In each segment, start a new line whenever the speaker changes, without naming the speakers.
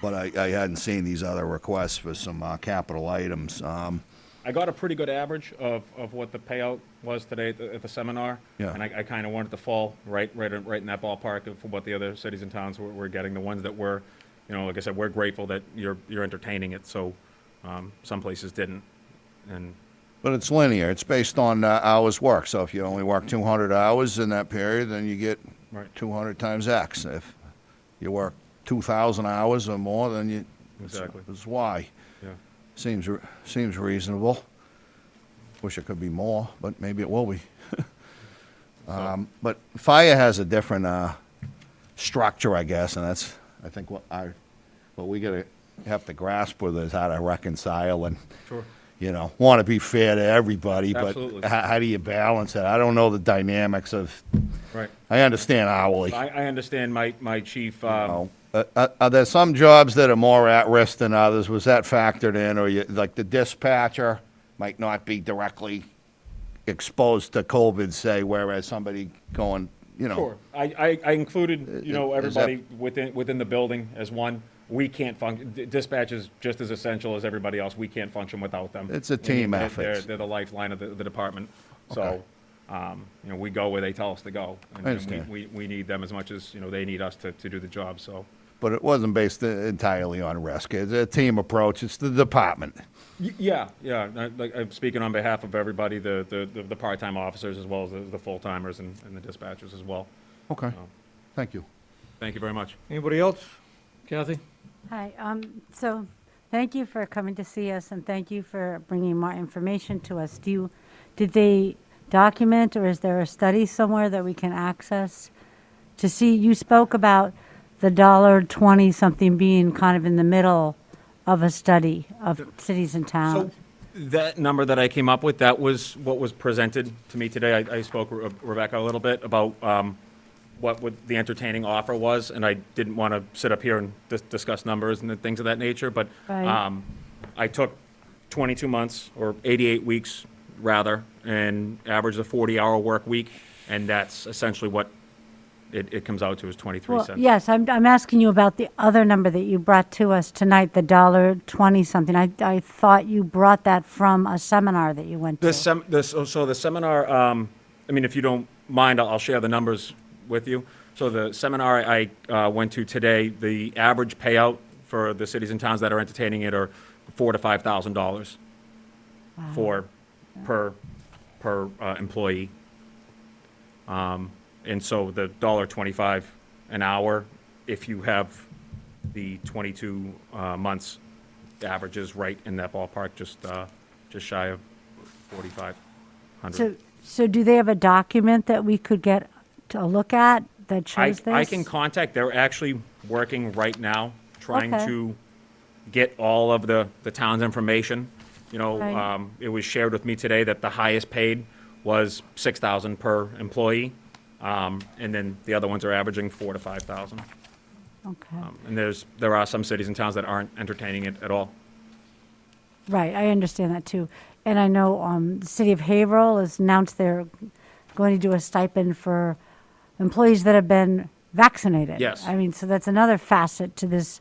but I, I hadn't seen these other requests for some uh, capital items. Um,
I got a pretty good average of, of what the payout was today at the, at the seminar.
Yeah.
And I, I kind of wanted to fall right, right, in- right in that ballpark of what the other cities and towns were, were getting, the ones that were, you know, like I said, we're grateful that you're, you're entertaining it, so, um, some places didn't. And
But it's linear. It's based on uh, hours worked. So if you only work 200 hours in that period, then you get
Right.
200 times X. If you work 2,000 hours or more, then you it's-
Exactly.
it's Y.
Yeah.
Seems re- seems reasonable. Wish it could be more, but maybe it will be. um, but fire has a different uh, structure, I guess, and that's I think what I what we gotta have to grasp with is how to reconcile and
Sure.
you know want to be fair to everybody,
Absolutely.
but how, how do you balance it? I don't know the dynamics of.
Right.
I understand hourly.
I, I understand my, my chief, um,
Oh, uh, uh, Are there some jobs that are more at risk than others? Was that factored in, or you, like the dispatcher might not be directly exposed to COVID, say, whereas somebody going, you know?
Sure. I, I, I included, you know,
Is- is that-
everybody within, within the building as one. We can't function, dispatch is just as essential as everybody else. We can't function without them.
It's a team
They're-
effort.
They're, they're the lifeline of the, the department.
Okay.
So, um, you know, we go where they tell us to go. and-
I
and we-
understand.
We, we need them as much as, you know, they need us to, to do the job, so.
But it wasn't based entirely on risk. It's a team approach. It's the department.
Y- Yeah, yeah, I- like, I'm speaking on behalf of everybody, the, the, the- the part-time officers as well as the, the full-timers and, and the dispatchers as well.
Okay,
So,
thank you.
Thank you very much.
Anybody else? Kathy?
Hi, um, so, thank you for coming to see us, and thank you for bringing more information to us. Do you, did they document, or is there a study somewhere that we can access? To see, you spoke about the dollar twenty something being kind of in the middle of a study of cities and
So
towns.
that number that I came up with, that was what was presented to me today. I, I spoke with Re- Rebecca a little bit about um, what would the entertaining offer was, and I didn't want to sit up here and dis- discuss numbers and things of that nature, but
Right.
um, I took 22 months, or 88 weeks, rather, and averaged a 40-hour work week, and that's essentially what it, it comes out to, is 23
Well,
cents.
yes, I'm, I'm asking you about the other number that you brought to us tonight, the dollar twenty something. I, I thought you brought that from a seminar that you went to.
The sem, the, so so the seminar, um, I mean, if you don't mind, I'll, I'll share the numbers with you. So the seminar I, uh, went to today, the average payout for the cities and towns that are entertaining it are four to five thousand dollars for, per, per, uh, employee. Um, and so the dollar twenty-five an hour, if you have the twenty-two, uh, months averages right in that ballpark, just, uh, just shy of forty-five
So,
hundred.
so do they have a document that we could get to a look at that
I,
shows this?
I can contact, they're actually working right now, trying
Okay.
to get all of the, the town's information. You know,
Right.
um, it was shared with me today that the highest paid was six thousand per employee. Um, and then the other ones are averaging four to five thousand.
Okay,
Um, And there's, there are some cities and towns that aren't entertaining it at all.
right, I understand that too. And I know, um, the city of Haverhill has announced they're going to do a stipend for employees that have been vaccinated.
Yes.
I mean, so that's another facet to this.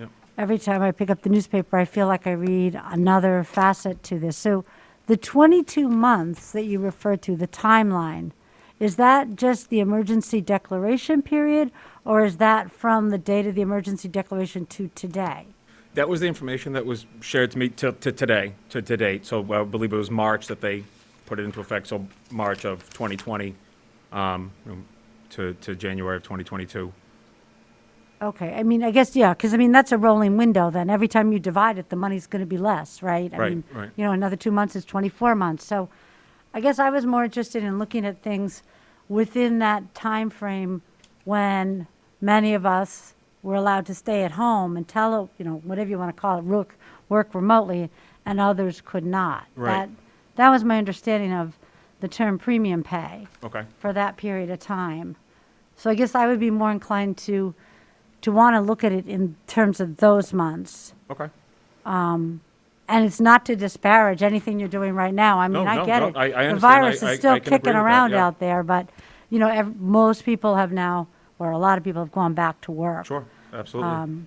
Yep.
Every time I pick up the newspaper, I feel like I read another facet to this. So the 22 months that you refer to, the timeline, is that just the emergency declaration period, or is that from the date of the emergency declaration to today?
That was the information that was shared to me to, to today, to, to date. So I believe it was March that they put it into effect, so March of 2020, um, you know, to, to January of 2022.
Okay, I mean, I guess, yeah, because I mean, that's a rolling window then. Every time you divide it, the money's going to be less, right? I
Right,
mean,
right.
You know, another two months is 24 months. So I guess I was more interested in looking at things within that time frame when many of us were allowed to stay at home and tele, you know, whatever you want to call it, work, work remotely, and others could not.
Right.
That- That was my understanding of the term premium pay
Okay.
for that period of time. So I guess I would be more inclined to, to want to look at it in terms of those months.
Okay.
And it's not to disparage anything you're doing right now. I mean,
No,
I
no,
get
no,
it.
I- I
The
understand.
virus
I- I-
is
I
still
can agree
kicking
with that,
around
yeah.
out there, but, you know, ev- most people have now, or a lot of people have gone back to work.
Sure, absolutely.
Um,